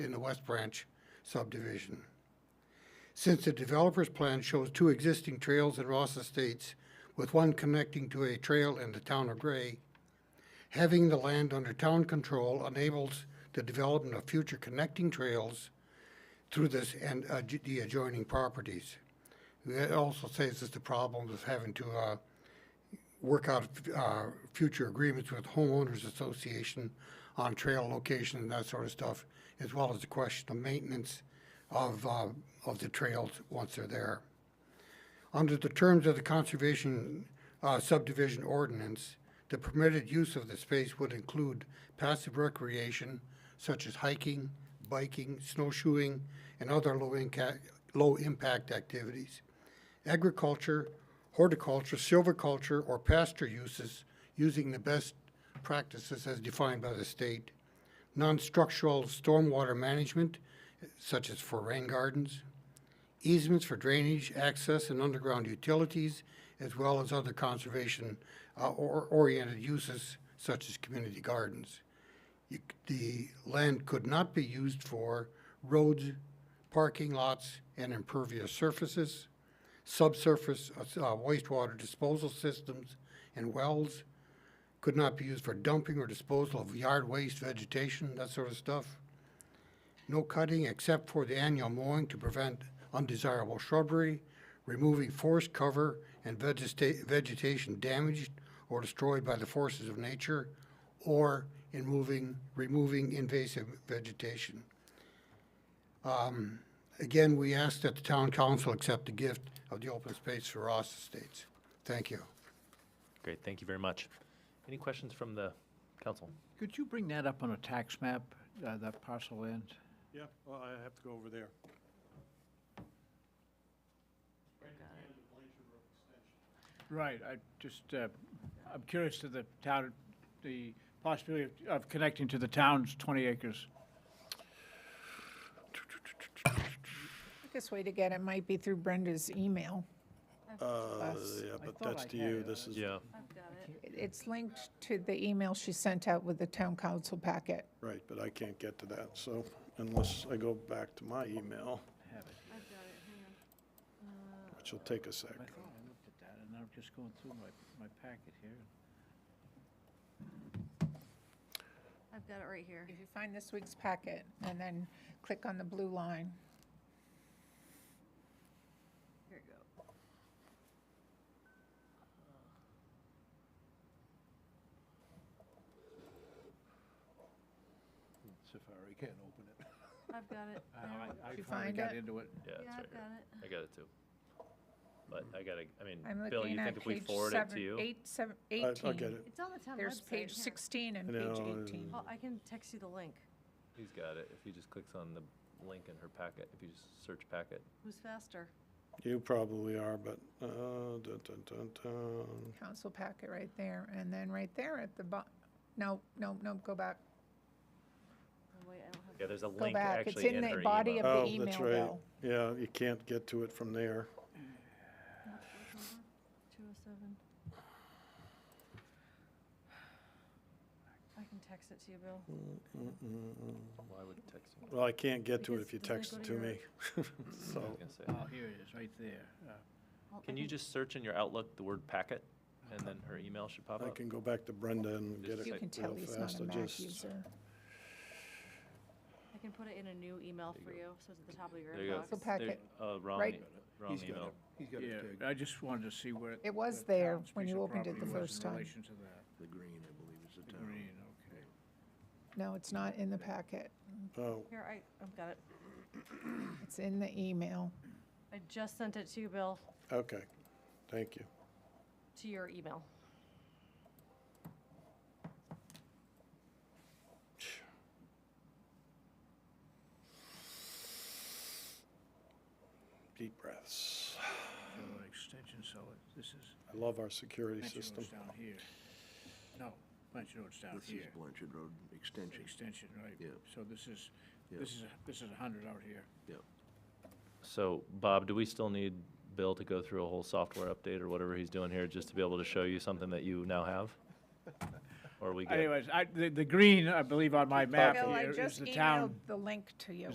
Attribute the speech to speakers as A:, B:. A: in the West Branch subdivision. Since the developer's plan shows two existing trails at Ross Estates, with one connecting to a trail in the town of Gray, having the land under town control enables the development of future connecting trails through this and uh, j- the adjoining properties. That also saves us the problem of having to uh, work out uh, future agreements with homeowners association on trail location and that sort of stuff, as well as the question of maintenance of, uh, of the trails once they're there. Under the terms of the conservation uh, subdivision ordinance, the permitted use of the space would include passive recreation such as hiking, biking, snowshoeing, and other low inca- low-impact activities. Agriculture, horticulture, silviculture, or pasture uses using the best practices as defined by the state. Non-structural stormwater management such as for rain gardens, easements for drainage, access, and underground utilities, as well as other conservation-oriented uses such as community gardens. You c- The land could not be used for roads, parking lots, and impervious surfaces, subsurface uh, s- uh, wastewater disposal systems and wells, could not be used for dumping or disposal of yard waste, vegetation, that sort of stuff. No cutting except for the annual mowing to prevent undesirable shrubbery, removing forest cover and vegeta- vegetation damaged or destroyed by the forces of nature, or in moving, removing invasive vegetation. Um, Again, we ask that the town council accept the gift of the open space for Ross Estates. Thank you.
B: Great, thank you very much. Any questions from the council?
C: Could you bring that up on a tax map, uh, that parcel land?
D: Yeah, well, I have to go over there.
C: Right, I just, uh, I'm curious to the town, the possibility of- of connecting to the town's 20 acres.
E: Quickest way to get it might be through Brenda's email.
D: Uh,
E: Us.
D: yeah,
C: I
D: but
C: thought
D: that's
C: I
D: to
C: had
D: you,
C: it.
D: this is,
B: Yeah,
E: It's linked to the email she sent out with the town council packet.
D: right, but I can't get to that, so unless I go back to my email, which will take a sec.
C: I thought I looked at that, and I'm just going through my, my packet here.
F: I've got it right here.
E: If you find this week's packet and then click on the blue line.
F: Here you go.
C: Safari can't open it.
F: I've got it. there.
C: Oh, I
E: you
C: finally
E: find
C: got
E: it?
C: into it.
B: yeah, it's
F: Yeah,
B: right
F: I've
B: here.
F: got it.
B: I got it too. But I gotta, I mean,
E: I'm
B: Bill, you
E: looking
B: think
E: at
B: if we
E: page
B: forward it to
E: seven,
B: you?
E: eight, seven,
D: I- I'll get
E: eighteen.
D: it.
F: It's on the town website.
E: There's page
F: here.
E: sixteen and
D: I
E: page
D: know, and-
E: eighteen.
F: Oh, I can text you the link.
B: He's got it, if he just clicks on the link in her packet, if you just search packet.
F: Who's faster?
D: You probably are, but, uh, dun, dun, dun, dun.
E: Council packet right there, and then right there at the bo, no, no, no, go back,
F: Oh, wait, I don't have.
B: Yeah, there's a
E: go
B: link
E: back. It's
B: actually
E: in
B: in her
E: the body of
B: email.
E: the
D: Oh, that's
E: email
D: right.
E: though.
D: Yeah, you can't get to it from there.
F: Two oh seven. I can text it to you, Bill.
E: Hmm.
B: Why would texting?
D: Well, I can't get to it
F: Because
D: if you
F: doesn't it
D: text
F: go
D: it to
F: to
D: me. So,
B: I was gonna say.
C: Oh, here it is, right there. Uh,
F: I'll- I
B: Can you just search in your Outlook the word packet, and then her email should pop
D: I
B: up?
D: can go back to Brenda and get
B: Just
D: it
E: You
B: like
E: can tell
D: real
E: he's
D: fast.
E: not a
D: I
E: Mac
D: just,
E: user.
F: I can put it in a new email for you, so it's at the top of your
B: There you go.
F: inbox.
E: Council packet,
B: There- Uh, wrong,
E: right-
B: e- wrong email.
G: He's got
C: Yeah,
G: it tagged.
C: I just wanted to see where.
E: It was
C: the
E: there
C: town's
E: when
C: piece
E: you
C: of
E: opened it
C: property
E: the
C: was
E: first
C: in
E: time.
C: relation to that.
G: The green, I believe, is the
C: The
G: town.
C: green, okay.
E: no, it's not in the packet,
D: oh,
F: Here, I, I've got it.
E: it's in the email.
F: I just sent it to you, Bill,
D: Oh, okay, thank you.
F: to your email.
D: Deep breaths.
C: So an extension, so it- this is.
D: I love our security
C: Blanchard
D: system.
C: Road's down here. No, Blanchard Road's down
G: This is
C: here.
G: Blanchard Road
C: It's
G: Extension,
C: Extension, right?
G: Yeah.
C: So this is,
G: Yeah.
C: this is, a- this is a hundred out here.
G: yeah.
B: So, Bob, do we still need Bill to go through a whole software update or whatever he's doing here, just to be able to show you something that you now have? or we get.
C: Anyways, I, the, the green, I believe on my map
E: Bill, I
C: here is
E: just
C: the town.
E: emailed the link to you.